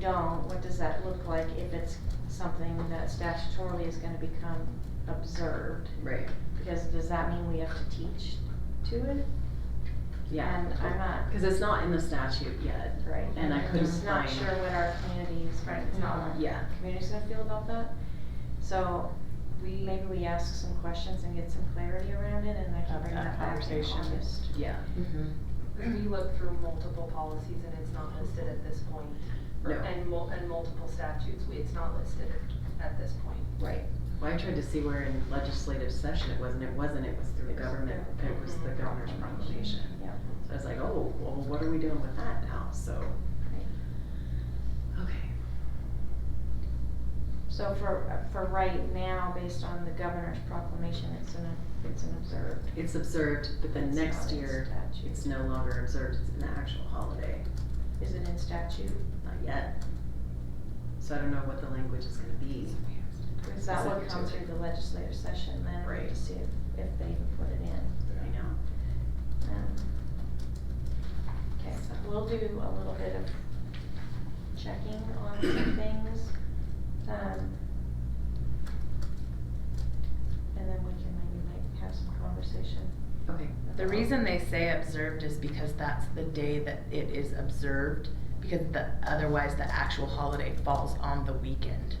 don't, what does that look like if it's something that statutorily is gonna become observed? Right, Because does that mean we have to teach to it? yeah. And I'm not- Cause it's not in the statute yet, Right. and I couldn't am not find- sure what our community is, Right, it's not. yeah. community's gonna feel about that. So we, maybe we ask some questions and get some clarity around it and I can Have bring that that back in conversation. August. Yeah. Mm-hmm. We looked through multiple policies and it's not listed at this point. No. And mul- and multiple statutes, we- it's not listed at this point. Right. Well, I tried to see where in legislative session it was, and it wasn't, it was through It was government, it was the governor's proclamation. Yeah. So I was like, oh, well, what are we doing with that now, so. Okay. So for, for right now, based on the governor's proclamation, it's an, it's an observed. It's observed, but then It's next not in year, statute. it's no longer observed, it's an actual holiday, Is it in statute? not yet. So I don't know what the language is gonna be. Is that what Subject to comes it. through the legislative session then? We have Right. To see if, if they even put it in. Um, I know. Okay, so we'll do a little bit of checking on some things. um, And then we can maybe like have some conversation. Okay. The reason they say observed is because that's the day that it is observed, because the, otherwise the actual holiday falls on the weekend.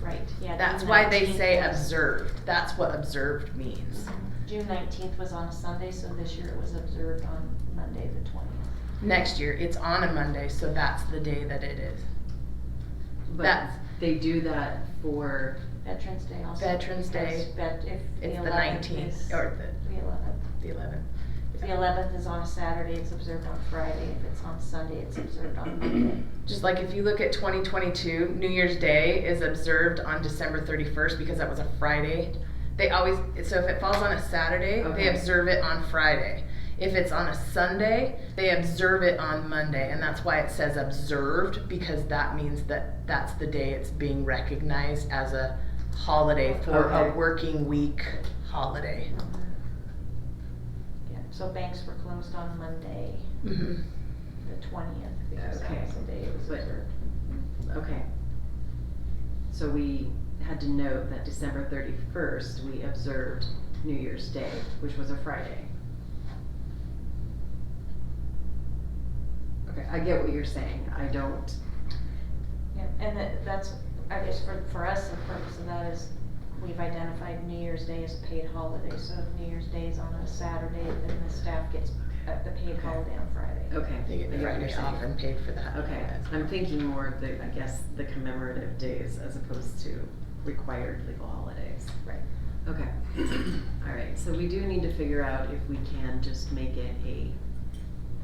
Right, yeah. That's June why they 19th say was- observed, that's what observed means. June nineteenth was on a Sunday, so this year it was observed on Monday, the twentieth. Next year, it's on a Monday, so that's the day that it is. But That's- they do that for, Veterans Day also. Veterans Day. because vet- if the It's the eleventh is. nineteenth, or The eleventh. the, the eleventh. If the eleventh is on a Saturday, it's observed on Friday. If it's on Sunday, it's observed on Monday. Just like if you look at 2022, New Year's Day is observed on December 31st because that was a Friday. They always, so if it falls on a Saturday, Okay. they observe it on Friday. If it's on a Sunday, they observe it on Monday. And that's why it says observed because that means that that's the day it's being recognized as a holiday for Okay. a working week holiday. Yeah, so banks were closed on Monday, Mm-hmm. hmm the twentieth, because Okay. that was the day it was But- observed. okay. So we had to note that December thirty-first, we observed New Year's Day, which was a Friday. Okay, I get what you're saying, I don't, Yeah, and that, that's, I guess for, for us, the purpose of that is, we've identified New Year's Day as a paid holiday, so if New Year's Day is on a Saturday, then the staff gets uh, the paid Okay. holiday on Friday. okay. They get I the what you're Friday off saying. and paid for that. Okay, I'm thinking more of the, I guess, the commemorative days as opposed to required legal holidays. Right. Okay, all right, so we do need to figure out if we can just make it a,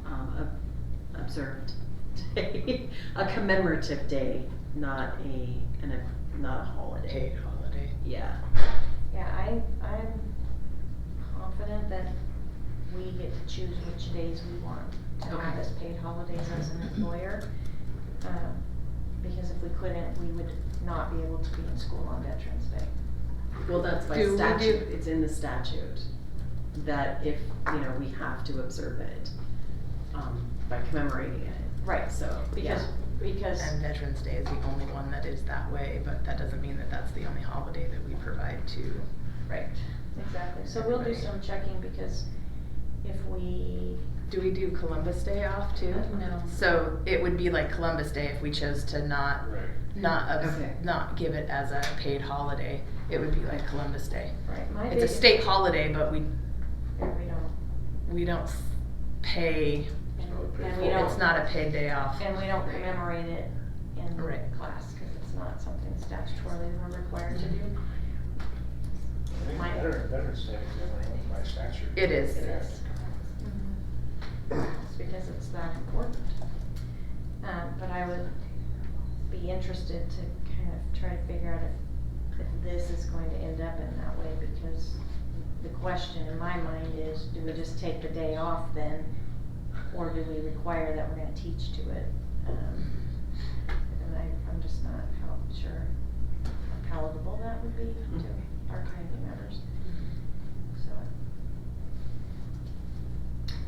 um, ob- observed day, a commemorative day, not a, an, not a holiday. Paid holiday. Yeah, Yeah, I, I'm confident that we get to choose which days we want to have Okay. as paid holidays as an employer. Um, Because if we couldn't, we would not be able to be in school on Veterans Day. well, that's by Do we do- statute, it's in the statute, that if, you know, we have to observe it, um, by commemorating it, Right, so, yeah. because, because, And Veterans Day is the only one that is that way, but that doesn't mean that that's the only holiday that we provide to. right, exactly. So we'll do Everybody. some checking because if we, Do we do Columbus Day off too? no, Uh-huh. So it would be like Columbus Day if we chose to not, Right. not, obs- Okay. not give it as a paid holiday. It would be like Columbus Day. right, my It's a biggest- state holiday, but we, And we don't, we don't s- pay, and- paid and we holiday. don't. it's not a paid day off. And we don't commemorate it in Right. class, cause it's not something statutorily we're required to do. I think My- Veteran, Veterans Day is governed by statute. It is. It Yeah. is. It's Mm-hmm. because it's that important. Um, but I would be interested to kind of try to figure out if, if this is going to end up in that way, because the question in my mind is, do we just take the day off then? Or do we require that we're gonna teach to it? Um, and I, I'm just not how sure how palatable that would be to our community members.